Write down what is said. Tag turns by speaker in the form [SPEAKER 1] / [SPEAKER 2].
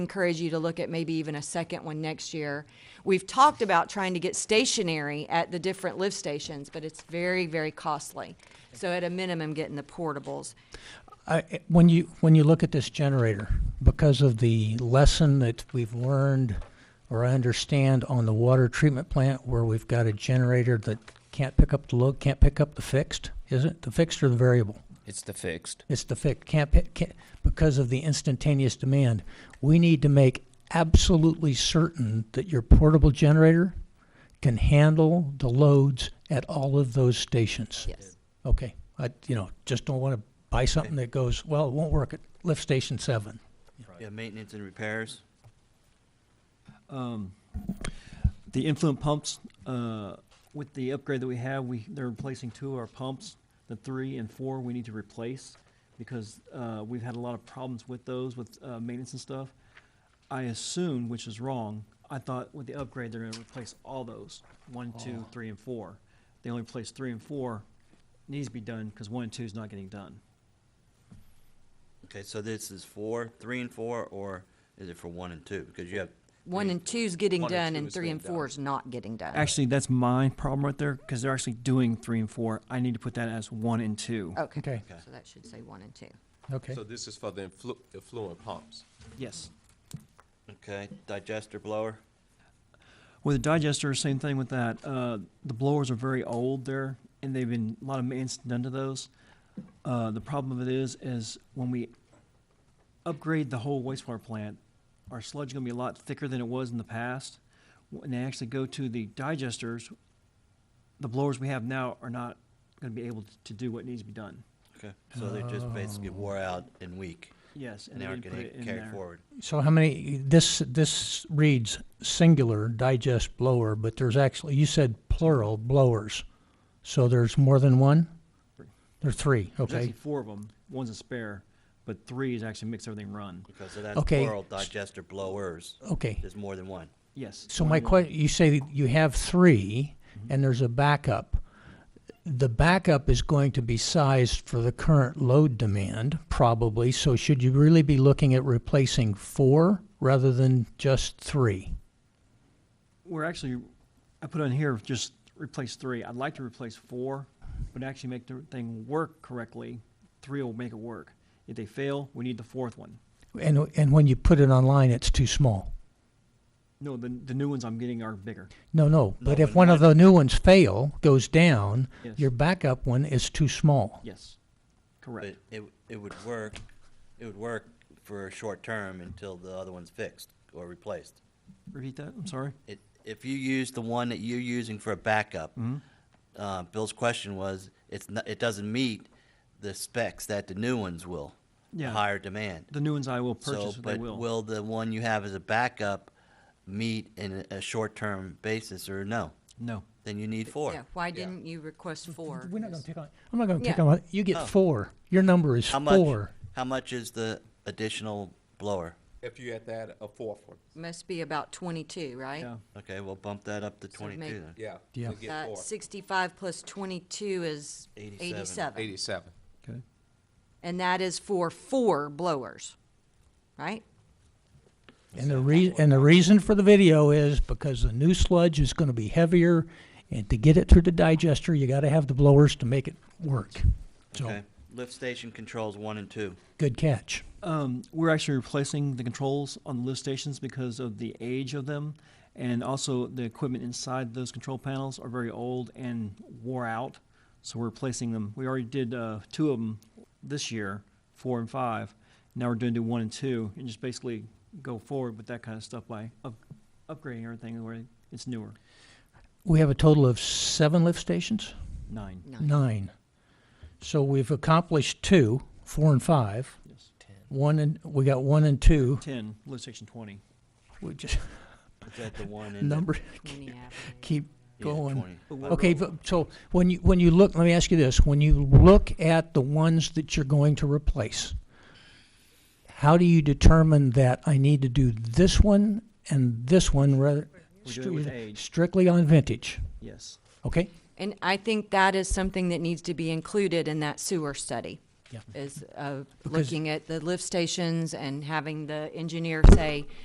[SPEAKER 1] encourage you to look at maybe even a second one next year. We've talked about trying to get stationary at the different lift stations, but it's very, very costly. So at a minimum, getting the portables.
[SPEAKER 2] I, when you when you look at this generator, because of the lesson that we've learned or I understand on the water treatment plant where we've got a generator that can't pick up the load, can't pick up the fixed, is it the fixed or the variable?
[SPEAKER 3] It's the fixed.
[SPEAKER 2] It's the fixed. Can't, pick, can't because of the instantaneous demand. We need to make absolutely certain that your portable generator can handle the loads at all of those stations.
[SPEAKER 1] Yes.
[SPEAKER 2] Okay, I, you know, just don't want to buy something that goes, well, it won't work at lift station seven.
[SPEAKER 4] Yeah, maintenance and repairs.
[SPEAKER 5] The influent pumps, uh, with the upgrade that we have, we, they're replacing two of our pumps. The three and four, we need to replace because uh, we've had a lot of problems with those, with uh, maintenance and stuff. I assumed, which is wrong, I thought with the upgrade, they're gonna replace all those, one, two, three, and four. They only replaced three and four. Needs to be done because one and two is not getting done.
[SPEAKER 4] Okay, so this is four, three and four, or is it for one and two? Because you have.
[SPEAKER 1] One
[SPEAKER 4] three-
[SPEAKER 1] and two's getting
[SPEAKER 4] one
[SPEAKER 1] done
[SPEAKER 4] two
[SPEAKER 1] and
[SPEAKER 4] is
[SPEAKER 1] three
[SPEAKER 4] getting
[SPEAKER 1] and
[SPEAKER 4] done.
[SPEAKER 1] four is not getting done.
[SPEAKER 5] Actually, that's my problem right there because they're actually doing three and four. I need to put that as one and two.
[SPEAKER 1] Okay,
[SPEAKER 2] Okay.
[SPEAKER 1] so that should say one and two.
[SPEAKER 2] Okay.
[SPEAKER 6] So this is for the influ- affluent pumps.
[SPEAKER 5] Yes.
[SPEAKER 4] Okay, digester blower.
[SPEAKER 5] With the digester, same thing with that. Uh, the blowers are very old there, and they've been a lot of maintenance done to those. Uh, the problem of it is, is when we upgrade the whole wastewater plant, our sludge is going to be a lot thicker than it was in the past. When they actually go to the digesters, the blowers we have now are not going to be able to do what needs to be done.
[SPEAKER 4] Okay, so they're just basically wore out and weak,
[SPEAKER 5] Yes,
[SPEAKER 4] and
[SPEAKER 5] they
[SPEAKER 4] they aren't
[SPEAKER 5] didn't put it
[SPEAKER 4] getting
[SPEAKER 5] in
[SPEAKER 4] carried
[SPEAKER 5] there.
[SPEAKER 4] forward.
[SPEAKER 2] So how many, this, this reads singular digest blower, but there's actually, you said plural blowers. So there's more than one?
[SPEAKER 5] Three.
[SPEAKER 2] There are three,
[SPEAKER 5] There's actually
[SPEAKER 2] okay.
[SPEAKER 5] four of them. One's a spare, but three is actually makes everything run.
[SPEAKER 4] Okay, so that's
[SPEAKER 2] Okay.
[SPEAKER 4] plural digester blowers.
[SPEAKER 2] Okay.
[SPEAKER 4] There's more than one.
[SPEAKER 5] Yes.
[SPEAKER 2] So
[SPEAKER 5] one
[SPEAKER 2] my
[SPEAKER 5] and one.
[SPEAKER 2] question, you say that you have three and there's a backup. The backup is going to be sized for the current load demand, probably. So should you really be looking at replacing four rather than just three?
[SPEAKER 5] We're actually, I put on here, just replace three. I'd like to replace four, but actually make the thing work correctly, three will make it work. If they fail, we need the fourth one.
[SPEAKER 2] And, and when you put it online, it's too small.
[SPEAKER 5] No, the, the new ones I'm getting are bigger.
[SPEAKER 2] No, no,
[SPEAKER 4] No,
[SPEAKER 2] but if
[SPEAKER 4] but
[SPEAKER 2] one of
[SPEAKER 4] not-
[SPEAKER 2] the new ones fail, goes down,
[SPEAKER 5] Yes.
[SPEAKER 2] your backup one is too small.
[SPEAKER 5] Yes,
[SPEAKER 4] But
[SPEAKER 5] correct.
[SPEAKER 4] it, it would work, it would work for a short term until the other one's fixed or replaced.
[SPEAKER 5] Repeat that, I'm sorry.
[SPEAKER 4] It, if you use the one that you're using for a backup,
[SPEAKER 5] Mm-hmm.
[SPEAKER 4] uh, Bill's question was, it's not, it doesn't meet the specs that the new ones will. the
[SPEAKER 5] Yeah.
[SPEAKER 4] Higher demand.
[SPEAKER 5] The new ones I will
[SPEAKER 4] So,
[SPEAKER 5] purchase, they
[SPEAKER 4] but
[SPEAKER 5] will.
[SPEAKER 4] will the one you have as a backup meet in a, a short-term basis or no?
[SPEAKER 5] No.
[SPEAKER 4] Then you need four.
[SPEAKER 1] Yeah, why didn't you request four?
[SPEAKER 2] We're not gonna take on, I'm not gonna take
[SPEAKER 1] Yeah.
[SPEAKER 2] on, you get four. Your number is
[SPEAKER 4] How much,
[SPEAKER 2] four.
[SPEAKER 4] how much is the additional blower?
[SPEAKER 6] If you had that, a fourth one,
[SPEAKER 1] Must be about twenty-two, right?
[SPEAKER 5] Yeah.
[SPEAKER 4] Okay, we'll bump that up to
[SPEAKER 1] So make-
[SPEAKER 4] twenty-two then.
[SPEAKER 6] yeah.
[SPEAKER 2] Yeah.
[SPEAKER 6] you'll get
[SPEAKER 1] That
[SPEAKER 6] four.
[SPEAKER 1] sixty-five plus twenty-two is
[SPEAKER 4] Eighty-seven.
[SPEAKER 1] eighty-seven.
[SPEAKER 6] Eighty-seven.
[SPEAKER 5] Okay.
[SPEAKER 1] And that is for four blowers, right?
[SPEAKER 2] And the rea- and the reason for the video is because the new sludge is gonna be heavier, and to get it through the digester, you gotta have the blowers to make it work. So,
[SPEAKER 4] Okay, lift station controls one and two.
[SPEAKER 2] good catch.
[SPEAKER 5] Um, we're actually replacing the controls on the lift stations because of the age of them, and also the equipment inside those control panels are very old and wore out. So we're replacing them. We already did uh, two of them this year, four and five. Now we're doing do one and two, and just basically go forward with that kind of stuff by up- upgrading everything where it's newer.
[SPEAKER 2] We have a total of seven lift stations?
[SPEAKER 5] Nine.
[SPEAKER 1] No.
[SPEAKER 2] Nine. So we've accomplished two, four and five.
[SPEAKER 5] Yes.
[SPEAKER 2] One and, we got one and two.
[SPEAKER 5] Ten. Lift station twenty.
[SPEAKER 2] We just,
[SPEAKER 4] Is that the one in? the-
[SPEAKER 2] number,
[SPEAKER 1] Twenty average.
[SPEAKER 2] keep
[SPEAKER 4] yeah,
[SPEAKER 2] going.
[SPEAKER 4] 20.
[SPEAKER 2] Okay, but- so when you, when you look, let me ask you this, when you look at the ones that you're going to replace, how do you determine that I need to do this one and this one rather?
[SPEAKER 5] We do it with
[SPEAKER 2] stri-
[SPEAKER 5] age.
[SPEAKER 2] Strictly on vintage,
[SPEAKER 5] Yes.
[SPEAKER 2] okay?
[SPEAKER 1] And I think that is something that needs to be included in that sewer study.
[SPEAKER 2] Yeah.
[SPEAKER 1] is uh,
[SPEAKER 2] Because-
[SPEAKER 1] looking at the lift stations and having the engineer say,